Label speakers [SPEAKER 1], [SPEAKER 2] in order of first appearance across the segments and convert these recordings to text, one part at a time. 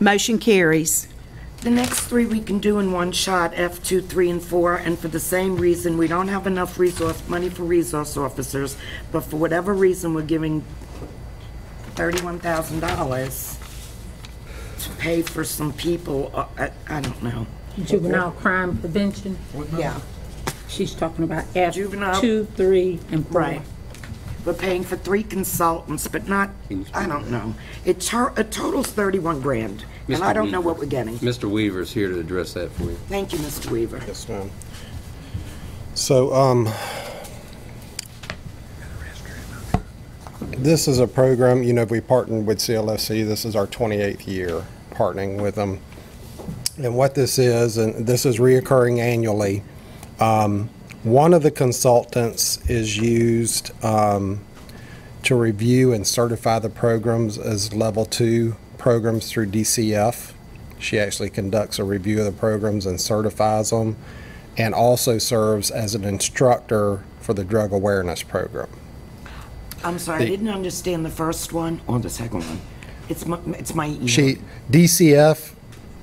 [SPEAKER 1] Motion carries.
[SPEAKER 2] The next three we can do in one shot, F2, 3, and 4, and for the same reason, we don't have enough resource, money for resource officers, but for whatever reason, we're giving $31,000 to pay for some people, uh, I I don't know.
[SPEAKER 3] Juvenile crime prevention.
[SPEAKER 2] Yeah.
[SPEAKER 3] She's talking about F
[SPEAKER 2] Juvenile-
[SPEAKER 3] two, three, and four.
[SPEAKER 2] Right. We're paying for three consultants, but not, I don't know. It tur- it totals 31 grand, and I
[SPEAKER 4] Mr.
[SPEAKER 2] don't know
[SPEAKER 4] Weaver.
[SPEAKER 2] what we're getting.
[SPEAKER 4] Mr. Weaver's here to address that for you.
[SPEAKER 2] Thank you, Mr. Weaver.
[SPEAKER 5] Yes, ma'am. So, um, this is a program, you know, we partnered with CLFC. This is our 28th year partnering with them. And what this is, and this is reoccurring annually, um, one of the consultants is used, um, to review and certify the programs as level two programs through DCF. She actually conducts a review of the programs and certifies them, and also serves as an instructor for the drug awareness program.
[SPEAKER 2] I'm sorry, I didn't understand the first one or the second one. It's my, it's my email.
[SPEAKER 5] She, DCF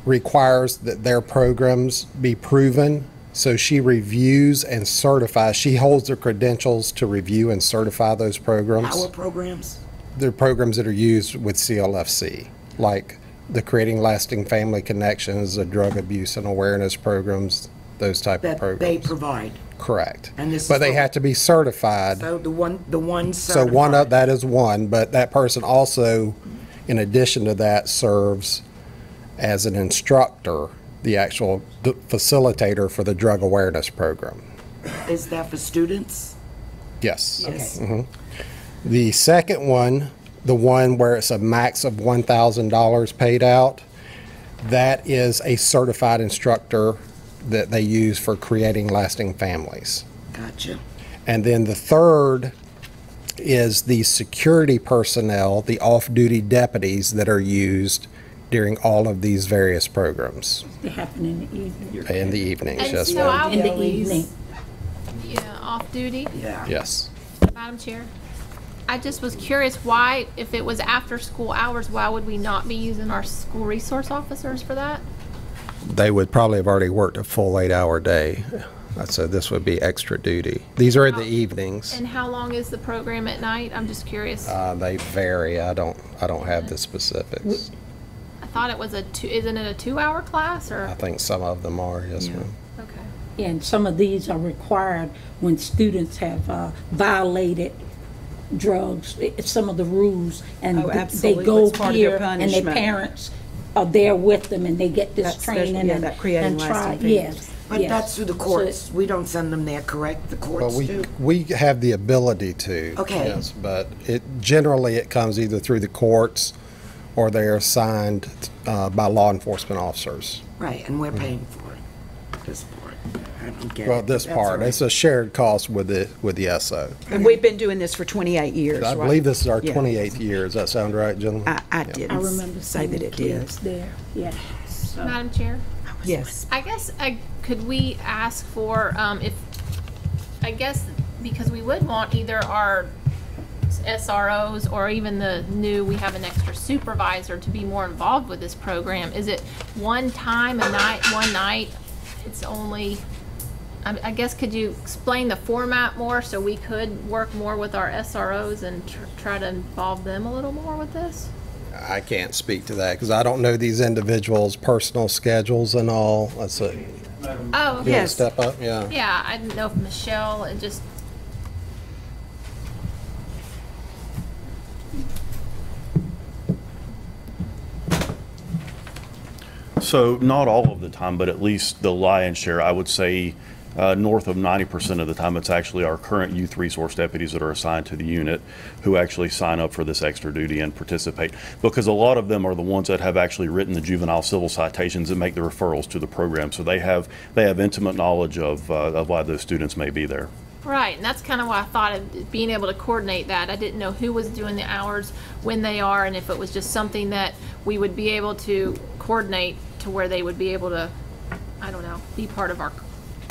[SPEAKER 5] requires that their programs be proven, so she reviews and certifies. She holds the credentials to review and certify those programs.
[SPEAKER 2] Our programs?
[SPEAKER 5] the programs that are used with CLFC, like the Creating Lasting Family Connections, the drug abuse and awareness programs, those type of
[SPEAKER 2] That they
[SPEAKER 5] programs.
[SPEAKER 2] provide.
[SPEAKER 5] Correct.
[SPEAKER 2] And this is
[SPEAKER 5] But they
[SPEAKER 2] what-
[SPEAKER 5] have to be certified.
[SPEAKER 2] So the one, the one
[SPEAKER 5] So one of,
[SPEAKER 2] certified.
[SPEAKER 5] that is one, but that person also, in addition to that, serves as an instructor, the actual d- facilitator for the drug awareness program.
[SPEAKER 2] Is that for students?
[SPEAKER 5] Yes. Mm-hmm.
[SPEAKER 2] Yes.
[SPEAKER 5] The second one, the one where it's a max of $1,000 paid out, that is a certified instructor that they use for creating lasting families.
[SPEAKER 2] Gotcha.
[SPEAKER 5] And then the third is the security personnel, the off-duty deputies that are used during all of these various programs
[SPEAKER 3] They happen in the evening.
[SPEAKER 5] in the evenings.
[SPEAKER 6] And
[SPEAKER 5] Yes,
[SPEAKER 6] so
[SPEAKER 5] ma'am.
[SPEAKER 6] I'll-
[SPEAKER 3] In the evening.
[SPEAKER 6] Yeah, off duty,
[SPEAKER 2] Yeah.
[SPEAKER 5] Yes.
[SPEAKER 6] Madam Chair. I just was curious why, if it was after school hours, why would we not be using our school resource officers for that?
[SPEAKER 5] they would probably have already worked a full eight-hour day. So this would be extra duty. These are in the evenings.
[SPEAKER 6] Oh, And how long is the program at night? I'm just curious. I
[SPEAKER 5] Uh, they vary. I don't, I don't have the specifics.
[SPEAKER 6] thought it was a two, isn't it a two-hour class
[SPEAKER 5] I
[SPEAKER 6] or?
[SPEAKER 5] think some of them are, yes, ma'am.
[SPEAKER 6] Okay.
[SPEAKER 3] And some of these are required when students have uh, violated drugs, i- some of the rules. And
[SPEAKER 1] Oh,
[SPEAKER 3] th-
[SPEAKER 1] absolutely.
[SPEAKER 3] They go
[SPEAKER 1] It's part of their
[SPEAKER 3] here and their
[SPEAKER 1] punishment.
[SPEAKER 3] parents are there with them and they get this
[SPEAKER 1] That's their-
[SPEAKER 3] training
[SPEAKER 1] yeah,
[SPEAKER 3] and.
[SPEAKER 1] that creating
[SPEAKER 3] and try-
[SPEAKER 1] lasting
[SPEAKER 3] Yes.
[SPEAKER 2] But
[SPEAKER 3] yes.
[SPEAKER 2] that's through the courts. We don't send them there, correct? The
[SPEAKER 5] Well,
[SPEAKER 2] courts
[SPEAKER 5] we,
[SPEAKER 2] do?
[SPEAKER 5] we have the ability to.
[SPEAKER 2] Okay.
[SPEAKER 5] Yes, but it, generally, it comes either through the courts or they're assigned uh, by law enforcement officers.
[SPEAKER 2] Right, and we're paying for it. This part. I don't get it.
[SPEAKER 5] Mm-hmm. Well, this
[SPEAKER 2] That's all
[SPEAKER 5] part,
[SPEAKER 2] right.
[SPEAKER 5] it's a shared cost with the, with the SO.
[SPEAKER 1] And we've been doing this for 28 years,
[SPEAKER 5] I
[SPEAKER 1] right?
[SPEAKER 5] believe this is our
[SPEAKER 1] Yeah.
[SPEAKER 5] 28th year. Does that sound right, gentlemen?
[SPEAKER 1] I, I
[SPEAKER 3] I
[SPEAKER 1] didn't
[SPEAKER 3] remember
[SPEAKER 1] s- say
[SPEAKER 3] seeing
[SPEAKER 1] that
[SPEAKER 3] the
[SPEAKER 1] it did.
[SPEAKER 3] kids there, yeah.
[SPEAKER 5] uh,
[SPEAKER 3] So-
[SPEAKER 6] Madam Chair?
[SPEAKER 1] Yes.
[SPEAKER 6] I guess I, could we ask for, um, if, I guess, because we would want either our SROs or even the new, we have an extra supervisor to be more involved with this program. Is it one time a night, one night? It's only, I, I guess, could you explain the format more so we could work more with our SROs and tr- try to involve them a little more with this?
[SPEAKER 5] I can't speak to that because I don't know these individuals' personal schedules and all. That's a
[SPEAKER 6] Oh, okay.
[SPEAKER 1] Yes.
[SPEAKER 5] step up, yeah.
[SPEAKER 6] Yeah, I didn't know if Michelle, it just,
[SPEAKER 7] So not all of the time, but at least the lion's share, I would say uh, north of 90% of the time, it's actually our current youth resource deputies that are assigned to the unit who actually sign up for this extra duty and participate. Because a lot of them are the ones that have actually written the juvenile civil citations and make the referrals to the program. So they have, they have intimate knowledge of, uh, of why those students may be there.
[SPEAKER 6] Right, and that's kind of why I thought of being able to coordinate that. I didn't know who was doing the hours, when they are, and if it was just something that we would be able to coordinate to where they would be able to, I don't know, be part of our,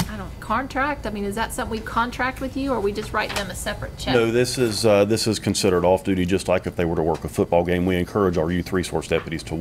[SPEAKER 6] I don't, contract? I mean, is that something we contract with you, or we just write them a separate check?
[SPEAKER 7] No, this is, uh, this is considered off-duty, just like if they were to work a football game. We encourage our youth resource deputies to